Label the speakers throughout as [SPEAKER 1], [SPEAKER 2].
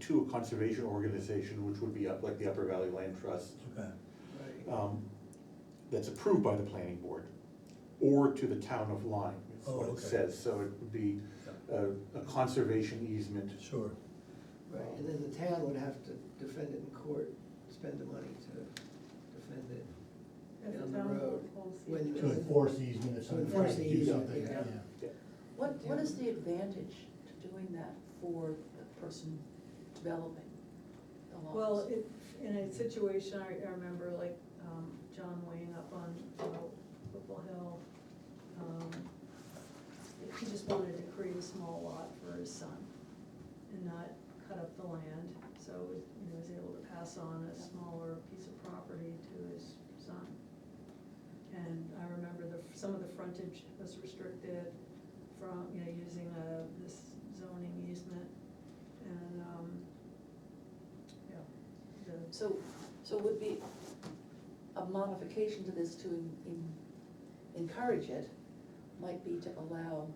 [SPEAKER 1] to a conservation organization, which would be up, like the Upper Valley Land Trust,
[SPEAKER 2] Okay,
[SPEAKER 3] Right.
[SPEAKER 1] um, that's approved by the planning board, or to the town of Lyme, is
[SPEAKER 2] Oh,
[SPEAKER 1] what it
[SPEAKER 2] okay.
[SPEAKER 1] says, so it would be a, a conservation easement.
[SPEAKER 2] sure.
[SPEAKER 3] Right, and then the town would have to defend it in court, spend the money to defend it.
[SPEAKER 4] As
[SPEAKER 3] down
[SPEAKER 4] a
[SPEAKER 3] the
[SPEAKER 4] town
[SPEAKER 3] road.
[SPEAKER 4] hall seat.
[SPEAKER 3] When
[SPEAKER 2] To enforce easement if somebody tries to do
[SPEAKER 3] enforce the
[SPEAKER 2] something,
[SPEAKER 3] easement,
[SPEAKER 2] yeah.
[SPEAKER 3] yeah.
[SPEAKER 5] What, what is the advantage to doing that for the person developing the lots?
[SPEAKER 4] Well, it, in a situation, I, I remember like, um, John Wayne up on, uh, Whipple Hill, um, he just wanted to create a small lot for his son and not cut up the land, so, you know, was able to pass on a smaller piece of property to his son. And I remember the, some of the frontage was restricted from, you know, using a, this zoning easement and, um, yeah. the-
[SPEAKER 5] So, so it would be a modification to this to en- en- encourage it, might be to allow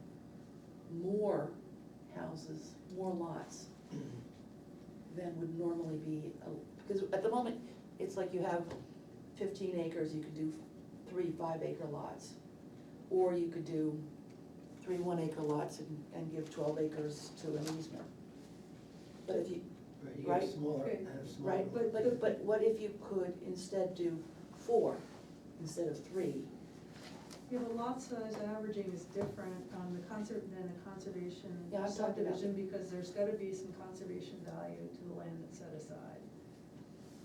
[SPEAKER 5] more houses, more lots than would normally be, a- because at the moment, it's like you have fifteen acres, you could do three five acre lots. Or you could do three one acre lots and, and give twelve acres to an easement. But if you,
[SPEAKER 3] Right, you get
[SPEAKER 5] Right.
[SPEAKER 3] smaller,
[SPEAKER 4] Okay.
[SPEAKER 3] have smaller.
[SPEAKER 5] Right, but, but, but what if you could instead do four instead of three?
[SPEAKER 4] Yeah, the lot size averaging is different on the conser, than the conservation
[SPEAKER 5] Yeah, I've talked about-
[SPEAKER 4] subdivision, because there's gotta be some conservation value to the land that's set aside.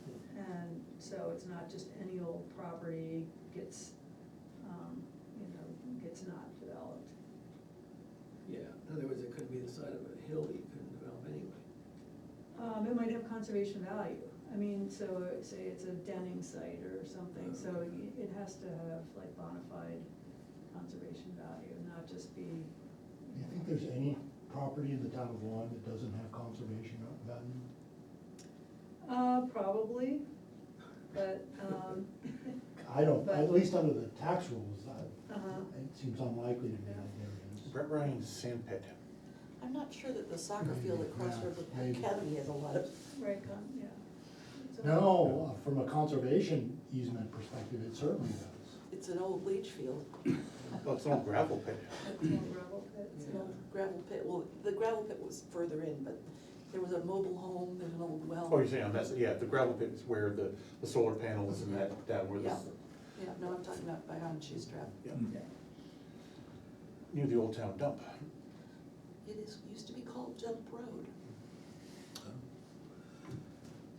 [SPEAKER 5] Hmm.
[SPEAKER 4] And so it's not just any old property gets, um, you know, gets not developed.
[SPEAKER 3] Yeah, in other words, it could be the side of a hill that you couldn't develop anyway.
[SPEAKER 4] Um, it might have conservation value, I mean, so uh, say it's a denning site or something, so
[SPEAKER 6] Uh-huh.
[SPEAKER 4] y- it has to have like bona fide conservation value, not just be.
[SPEAKER 6] Do you think there's any property in the town of Lyme that doesn't have conservation value?
[SPEAKER 4] Uh, probably, but, um,
[SPEAKER 6] I don't,
[SPEAKER 4] But-
[SPEAKER 6] at least under the tax rules, I-
[SPEAKER 4] uh-huh,
[SPEAKER 6] it seems unlikely to me that there is.
[SPEAKER 1] Brett Ryan's sand pit,
[SPEAKER 5] I'm not sure that the soccer field at Cross River
[SPEAKER 6] Maybe.
[SPEAKER 5] Academy has a lot of,
[SPEAKER 4] right, con- yeah. So-
[SPEAKER 6] No, uh, from a conservation easement perspective, it certainly does.
[SPEAKER 5] it's an old leach field,
[SPEAKER 1] well, Oh, it's an old gravel pit.
[SPEAKER 4] It's all gravel pits.
[SPEAKER 5] it's an old gravel pit, well, the gravel pit was further in, but there was a mobile home, there's an old well.
[SPEAKER 1] Oh, you're saying, that's, yeah, the gravel pit is where the, the solar panels and that, that were the,
[SPEAKER 5] Yeah, yeah, no, I'm talking about by on Trap.
[SPEAKER 1] yeah,
[SPEAKER 2] Hmm.
[SPEAKER 1] near the old town dump.
[SPEAKER 5] It is, used to be called Jump Road.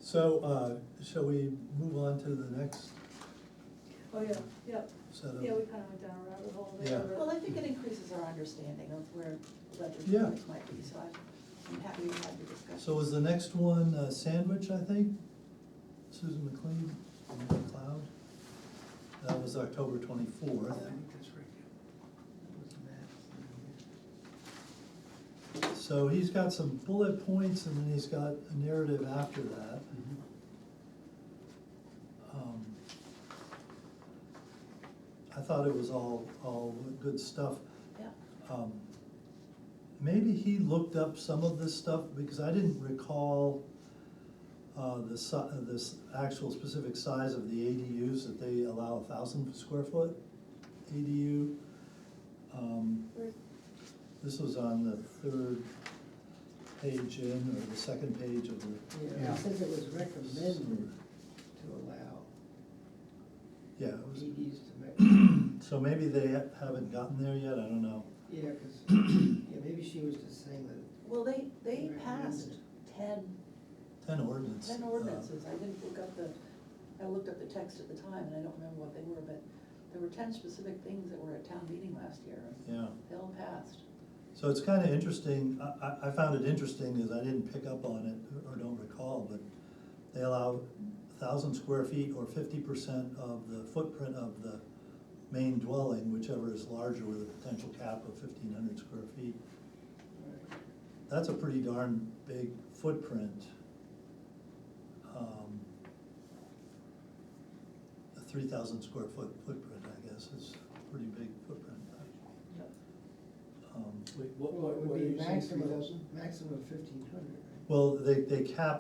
[SPEAKER 2] So, uh, shall we move on to the next
[SPEAKER 4] Oh, yeah, yeah,
[SPEAKER 2] set
[SPEAKER 6] Uh-huh.
[SPEAKER 2] of?
[SPEAKER 4] yeah, we kinda went down a rabbit hole
[SPEAKER 2] Yeah.
[SPEAKER 4] there. but-
[SPEAKER 5] Well, I think it increases our understanding of where
[SPEAKER 2] Yeah.
[SPEAKER 5] legislative might be, so I'm- I'm happy we had the discussion.
[SPEAKER 2] So was the next one uh, Sandwich, I think? Susan McLean, McLeod? That was October
[SPEAKER 3] I
[SPEAKER 2] twenty-fourth.
[SPEAKER 3] think that's right, yeah. That was Matt's, yeah.
[SPEAKER 2] So he's got some bullet points and then he's got a narrative after that.
[SPEAKER 1] Mm-hmm.
[SPEAKER 2] Um, I thought it was all, all good stuff.
[SPEAKER 5] Yeah.
[SPEAKER 2] Um, Maybe he looked up some of this stuff, because I didn't recall uh, the si, this actual specific size of the ADUs, that they allow a thousand square foot ADU. Um,
[SPEAKER 5] Where's-
[SPEAKER 2] This was on the third page in, or the second page of the,
[SPEAKER 3] Yeah,
[SPEAKER 6] Yeah.
[SPEAKER 3] it says it was recommended to allow
[SPEAKER 2] yeah, it was,
[SPEAKER 3] EDs to make,
[SPEAKER 2] so maybe they haven't gotten there yet, I don't know.
[SPEAKER 3] yeah, cause, yeah, maybe she was just saying that,
[SPEAKER 5] Well, they, they
[SPEAKER 3] Recommended.
[SPEAKER 5] passed ten
[SPEAKER 2] Ten ordinance.
[SPEAKER 5] Ten
[SPEAKER 2] uh,
[SPEAKER 5] ordinances, I didn't look up the, I looked up the text at the time, and I don't remember what they were, but there were ten specific things that were at town meeting last year, and
[SPEAKER 2] Yeah.
[SPEAKER 5] they all passed.
[SPEAKER 2] So it's kind of interesting, I, I, I found it interesting, because I didn't pick up on it, or don't recall, but they allow thousand square feet or fifty percent of the footprint of the main dwelling, whichever is larger with a potential cap of fifteen hundred square feet. That's a pretty darn big footprint. Um, A three thousand square foot footprint, I guess, is a pretty big footprint.
[SPEAKER 4] Yeah.
[SPEAKER 2] Um,
[SPEAKER 7] Wait, what,
[SPEAKER 3] well,
[SPEAKER 7] what,
[SPEAKER 3] it
[SPEAKER 7] what
[SPEAKER 3] would
[SPEAKER 7] are
[SPEAKER 3] be
[SPEAKER 7] you saying, three
[SPEAKER 3] maximum,
[SPEAKER 7] thousand?
[SPEAKER 3] maximum of fifteen hundred, right?
[SPEAKER 2] Well, they, they cap